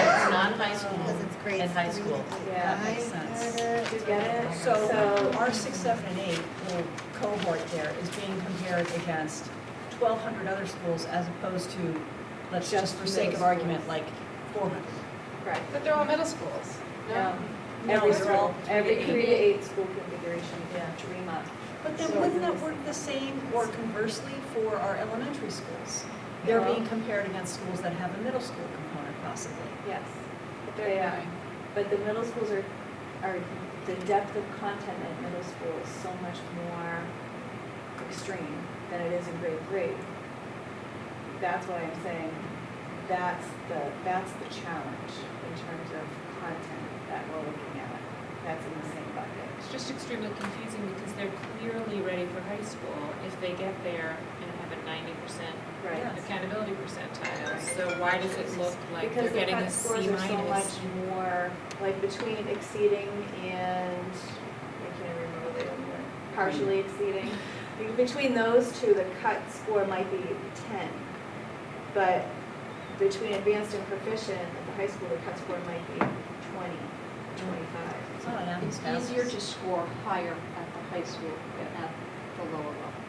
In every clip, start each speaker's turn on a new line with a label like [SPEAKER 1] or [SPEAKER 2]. [SPEAKER 1] high school.
[SPEAKER 2] Because it's grades
[SPEAKER 1] In high
[SPEAKER 2] three
[SPEAKER 1] school.
[SPEAKER 2] to
[SPEAKER 3] Yeah,
[SPEAKER 1] that makes
[SPEAKER 2] five,
[SPEAKER 1] sense.
[SPEAKER 2] kinda.
[SPEAKER 3] Do you get it?
[SPEAKER 4] So our six, seven, and eight little cohort there is being compared against 1,200 other schools as opposed to, let's just for sake of argument, like 400.
[SPEAKER 3] Right.
[SPEAKER 5] But they're all middle schools.
[SPEAKER 3] No.
[SPEAKER 5] No,
[SPEAKER 3] Every
[SPEAKER 5] it's all-
[SPEAKER 3] school, every three to eight school configuration,
[SPEAKER 1] Yeah.
[SPEAKER 3] dream up.
[SPEAKER 5] But then
[SPEAKER 3] So-
[SPEAKER 5] wouldn't that work the same or conversely for our elementary schools? They're
[SPEAKER 3] No.
[SPEAKER 5] being compared against schools that have a middle school component possibly.
[SPEAKER 3] Yes.
[SPEAKER 4] But
[SPEAKER 3] They
[SPEAKER 4] they're
[SPEAKER 3] are.
[SPEAKER 4] nine.
[SPEAKER 3] But the middle schools are, are, the depth of content at middle school is so much more extreme than it is in grade three. That's why I'm saying, that's the, that's the challenge in terms of content that we're looking at. That's in the same bucket.
[SPEAKER 6] It's just extremely confusing because they're clearly ready for high school if they get there and have a ninety percent
[SPEAKER 3] Right.
[SPEAKER 6] accountability percentile. So why does it look like they're
[SPEAKER 3] Because the
[SPEAKER 6] getting a
[SPEAKER 3] cut
[SPEAKER 6] C
[SPEAKER 3] scores are so
[SPEAKER 6] minus?
[SPEAKER 3] much more, like between exceeding and, I can't remember the other one, partially exceeding. Be- Between those two, the cut score might be ten. But between advanced and proficient at the high school, the cut score might be 20, 25.
[SPEAKER 5] It's not an apples
[SPEAKER 7] It's
[SPEAKER 5] to apples.
[SPEAKER 7] easier to score higher at the high school than at the lower level.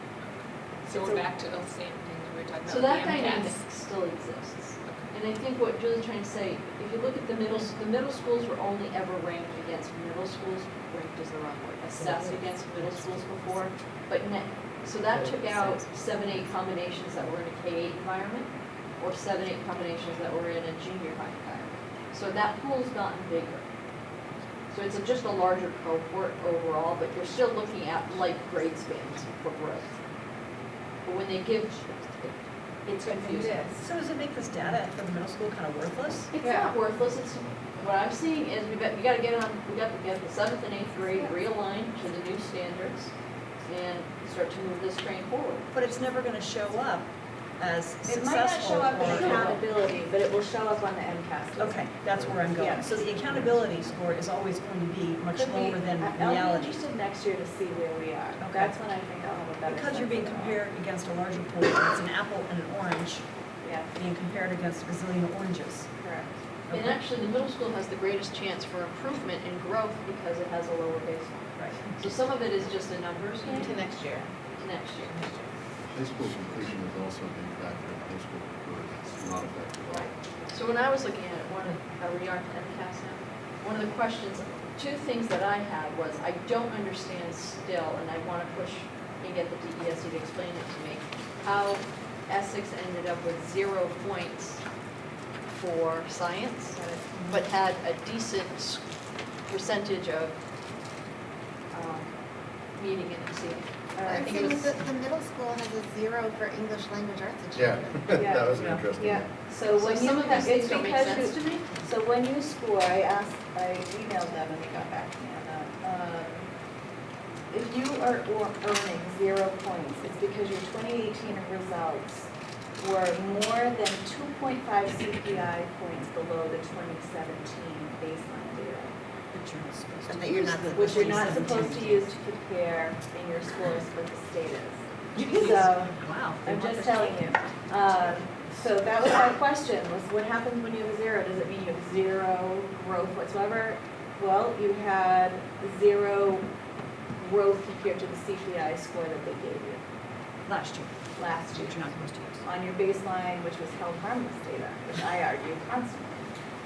[SPEAKER 6] So
[SPEAKER 3] So-
[SPEAKER 6] we're back to the same thing that we were talking about.
[SPEAKER 7] So that
[SPEAKER 6] the MCAS.
[SPEAKER 7] dynamic still exists. And I think what Julie's trying to say, if you look at the middle, the middle schools were only ever ranked against middle schools, ranked is the wrong word, assessed against middle schools before, but net, so that took out seven, eight combinations that were in a K eight environment, or seven, eight combinations that were in a junior high environment. So that pool's gotten bigger. So it's a- just a larger cohort overall, but you're still looking at like grade spans for growth. But when they give, it's confusing.
[SPEAKER 5] So does it make this data for the middle school kind of worthless?
[SPEAKER 7] It's
[SPEAKER 3] Yeah.
[SPEAKER 7] not worthless, it's, what I'm seeing is we got, we gotta get on, we got to get the seventh and eighth grade realigned to the new standards and start to move this train forward.
[SPEAKER 5] But it's never going to show up as
[SPEAKER 3] It might not
[SPEAKER 5] successful
[SPEAKER 3] show up in
[SPEAKER 5] or-
[SPEAKER 3] accountability, but it will show up on the MCAS. test.
[SPEAKER 5] Okay, that's where I'm
[SPEAKER 3] Yeah.
[SPEAKER 5] going. So the accountability score is always going to be much
[SPEAKER 3] Could we-
[SPEAKER 5] lower than
[SPEAKER 3] I- e- I'll be
[SPEAKER 5] reality.
[SPEAKER 3] interested next year to see where we are.
[SPEAKER 5] Okay.
[SPEAKER 3] That's when I think I'll have a better
[SPEAKER 5] Because you're
[SPEAKER 3] sense
[SPEAKER 5] being
[SPEAKER 3] of it all.
[SPEAKER 5] compared against a larger pool, it's an apple and an orange
[SPEAKER 3] Yeah,
[SPEAKER 5] being compared against a gazillion oranges.
[SPEAKER 3] correct.
[SPEAKER 7] And actually, the middle school has the greatest chance for improvement and growth because it has a lower baseline.
[SPEAKER 5] Right.
[SPEAKER 7] So some of it is just a numbers game
[SPEAKER 4] To next year.
[SPEAKER 7] to next year.
[SPEAKER 8] High school completion is also a big factor, high school completion is not effective at all.
[SPEAKER 7] So when I was looking at it, one of, are we on MCAS now? One of the questions, two things that I had was, I don't understand still, and I want to push and get the DESE E to explain it to me, how Essex ended up with zero points for science, but had a decent percentage of um, meeting and exceeding. I
[SPEAKER 2] I'm
[SPEAKER 7] think it
[SPEAKER 2] seeing
[SPEAKER 7] was-
[SPEAKER 2] that the middle school has a zero for English language arts
[SPEAKER 8] Yeah,
[SPEAKER 2] achievement.
[SPEAKER 3] Yeah,
[SPEAKER 8] that was an
[SPEAKER 5] yeah,
[SPEAKER 8] interesting
[SPEAKER 3] Yeah,
[SPEAKER 8] one.
[SPEAKER 3] so
[SPEAKER 7] So
[SPEAKER 3] when you,
[SPEAKER 7] some of these
[SPEAKER 3] it's
[SPEAKER 7] things don't make
[SPEAKER 3] because
[SPEAKER 7] sense
[SPEAKER 3] you,
[SPEAKER 7] to me.
[SPEAKER 3] so when you score, I asked, I emailed them and they got back to me on that. Um, If you are or- earning zero points, it's because your 2018 results were more than 2.5 CPI points below the 2017 baseline data.
[SPEAKER 5] But you're not supposed to
[SPEAKER 2] And that you're not supposed
[SPEAKER 3] which
[SPEAKER 2] to
[SPEAKER 3] you're
[SPEAKER 2] be
[SPEAKER 3] not supposed to use to compare in your scores with the state is. So,
[SPEAKER 5] Wow. they
[SPEAKER 3] I'm
[SPEAKER 5] want
[SPEAKER 3] just
[SPEAKER 5] their-
[SPEAKER 3] telling you. Um, So that was my question, was what happens when you have a zero? Does it mean you have zero growth whatsoever? Well, you had zero growth compared to the CPI score that they gave you
[SPEAKER 5] Last year,
[SPEAKER 3] last year
[SPEAKER 5] which you're not supposed to use.
[SPEAKER 3] on your baseline, which was held harmless data, which I argue constantly.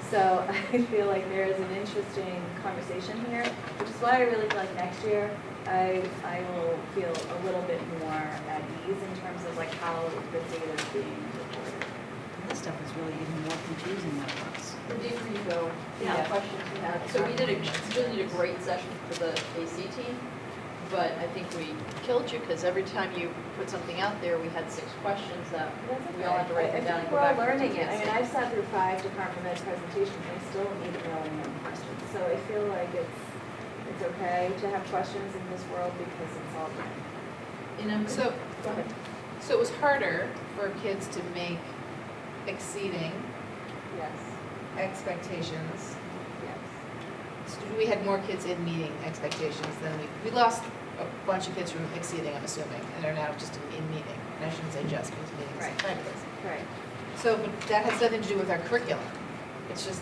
[SPEAKER 3] So I feel like there is an interesting conversation here, which is why I really feel like next year, I, I will feel a little bit more at ease in terms of like how the data is being reported.
[SPEAKER 5] And This stuff is really even more confusing than it was.
[SPEAKER 7] The deeper you go, the
[SPEAKER 3] Yeah.
[SPEAKER 7] more questions you have. So we did a, Jill did a great session for the AC team, but I think we killed you because every time you put something out there, we had six questions that we all had to write them down and go back.
[SPEAKER 3] I
[SPEAKER 7] and
[SPEAKER 3] think we're all learning it. I
[SPEAKER 7] take
[SPEAKER 3] mean, I've sat through five department head presentations, and I still need to know any questions. So I feel like it's, it's okay to have questions in this world because it's all new.
[SPEAKER 7] And I'm, so,
[SPEAKER 5] So-
[SPEAKER 3] Go ahead.
[SPEAKER 5] So it was harder for kids to make exceeding
[SPEAKER 3] Yes.
[SPEAKER 5] expectations.
[SPEAKER 3] Yes.
[SPEAKER 5] We had more kids in meeting expectations than we, we lost a bunch of kids from exceeding, I'm assuming, and are now just in meeting. And I shouldn't say just, because meeting is
[SPEAKER 3] Right.
[SPEAKER 5] fabulous.
[SPEAKER 3] Right.
[SPEAKER 5] So, but that has nothing to do with our curriculum. It's just